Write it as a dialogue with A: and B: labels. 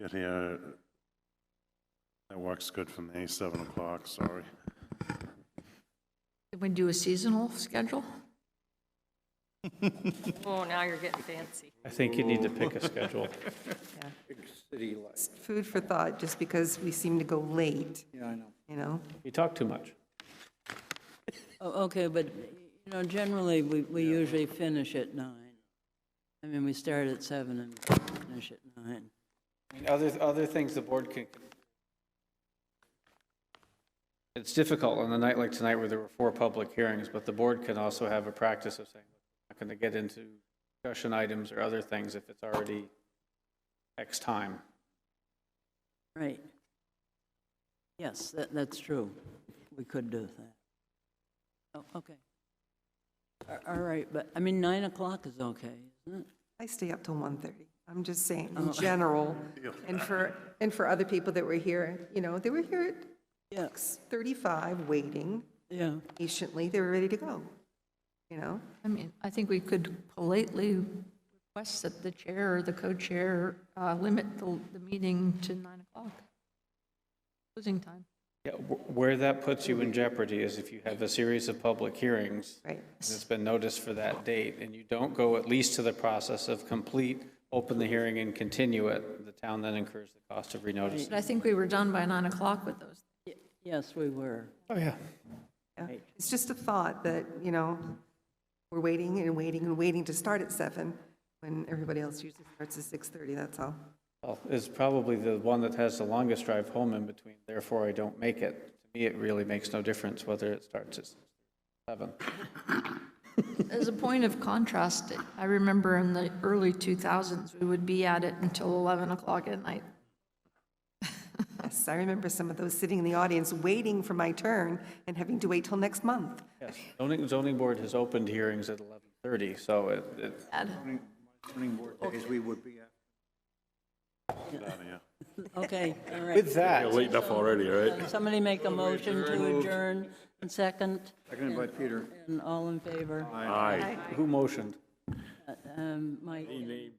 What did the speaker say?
A: Get here, that works good for me, 7 o'clock, sorry.
B: Can we do a seasonal schedule?
C: Oh, now you're getting fancy.
D: I think you need to pick a schedule.
E: It's Food for thought, just because we seem to go late. Yeah, I know. You know?
D: You talk too much.
F: Oh, Okay, but, you know, generally, we, we usually finish at nine. I mean, we start at seven and finish at nine.
G: I mean, Other, other things the board could. It's difficult on a night like tonight where there were four public hearings, but the board can also have a practice of saying, "We're not going to get into discussion items or other things if it's already X time.
F: Right. Yes, that, that's true. We could do that. Oh, okay. A- All right, but, I mean, nine o'clock is okay, isn't it?
E: I stay up till 1:30. I'm just saying, in general, and for, and for other people that were here, you know, they were here
F: Yeah,
E: at 35, waiting
F: yeah.
E: patiently, they were ready to go, you know?
B: I mean, I think we could politely request that the chair or the co-chair uh, limit the, the meeting to 9 o'clock. Closing time.
G: Yeah, wh- Where that puts you in jeopardy is if you have a series of public hearings.
E: Right.
G: And it's been noticed for that date, and you don't go at least to the process of complete, open the hearing and continue it, the town then incurs the cost of renoticing.
B: But I think we were done by 9 o'clock with those.
F: Yes, we were.
D: Oh, yeah.
E: Yeah. It's just a thought that, you know, we're waiting and waiting and waiting to start at seven, when everybody else usually starts at 6:30, that's all.
G: Well, Is probably the one that has the longest drive home in between, therefore I don't make it. To me, it really makes no difference whether it starts at seven.
B: As a point of contrast, I remember in the early 2000s, we would be at it until 11 o'clock at night.
E: Yes, I remember some of those sitting in the audience, waiting for my turn and having to wait till next month.
G: Yes, zoning, zoning board has opened hearings at 11:30, so it, it,
B: Add-
A: Outta here.
F: Okay, all right.
H: With that,
I: Late enough already, right?
F: Somebody make a motion to adjourn, and second,
H: seconded by Peter.
F: and all in favor?
I: Aye.
G: who motioned?
F: Um, Mike?